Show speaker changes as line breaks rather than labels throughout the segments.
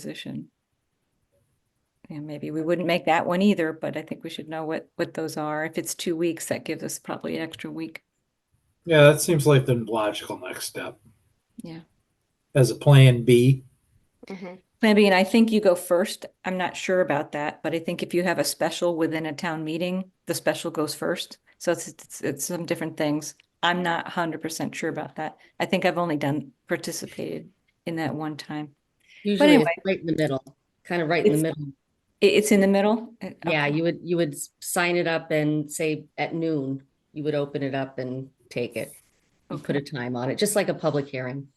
position. And maybe we wouldn't make that one either, but I think we should know what, what those are. If it's two weeks, that gives us probably an extra week.
Yeah, that seems like the logical next step.
Yeah.
As a plan B.
Mhm.
Plan B, and I think you go first. I'm not sure about that, but I think if you have a special within a town meeting, the special goes first. So it's, it's, it's some different things. I'm not hundred percent sure about that. I think I've only done, participated in that one time.
Usually it's
anyway.
right in the middle, kind of right in the middle.
It, it's in the middle? Uh,
Yeah,
okay.
you would, you would s- sign it up and say at noon, you would open it up and take it. You put a time on it, just like a public hearing.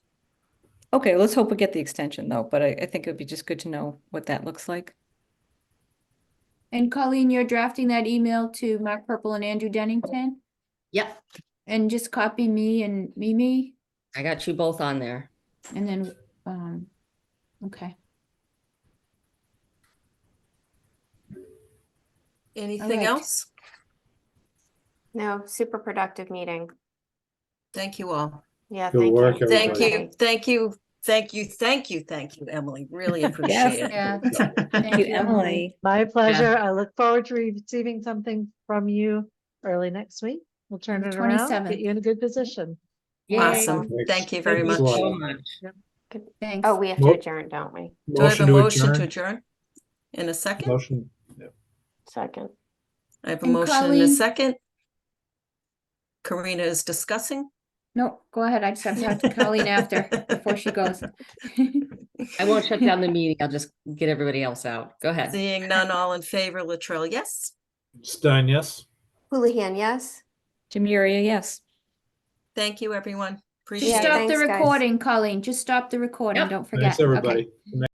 Okay, let's hope we get the extension though, but I, I think it would be just good to know what that looks like.
And Colleen, you're drafting that email to Mark Purple and Andrew Dennington?
Yep,
And just copy me and Mimi
I got you both on there.
and then, um, okay.
Anything
right.
else?
No, super productive meeting.
Thank you all.
Yeah,
Good
thank
work,
you.
everybody.
Thank you, thank you, thank you, thank you, thank you, Emily. Really appreciate it.
Yeah.
Thank you, Emily.
My pleasure. I look forward to receiving something from you early next week. We'll turn
The
it around,
27th.
get you in a good position.
Awesome.
Thanks.
Thank you very
Thanks
much.
a lot.
Do
Thanks.
Oh, we have to
Nope.
adjourn, don't we?
I have
Motion
a
to
motion to
adjourn.
adjourn? In a second?
Motion.
Second.
I have a
And
motion in a
Colleen-
second. Karina is discussing.
No, go ahead. I just have to talk to Colleen after, before she goes.
I won't shut down the meeting. I'll just get everybody else out. Go ahead.
Seeing none, all in favor, Latrell, yes.
Stein, yes?
Houlihan, yes?
Jamuria, yes.
Thank you, everyone. Appreciate
Just
it.
Yeah,
stop the
thanks, guys.
recording, Colleen. Just stop the recording.
Yep.
Don't forget.
Thanks,
Okay.
everybody.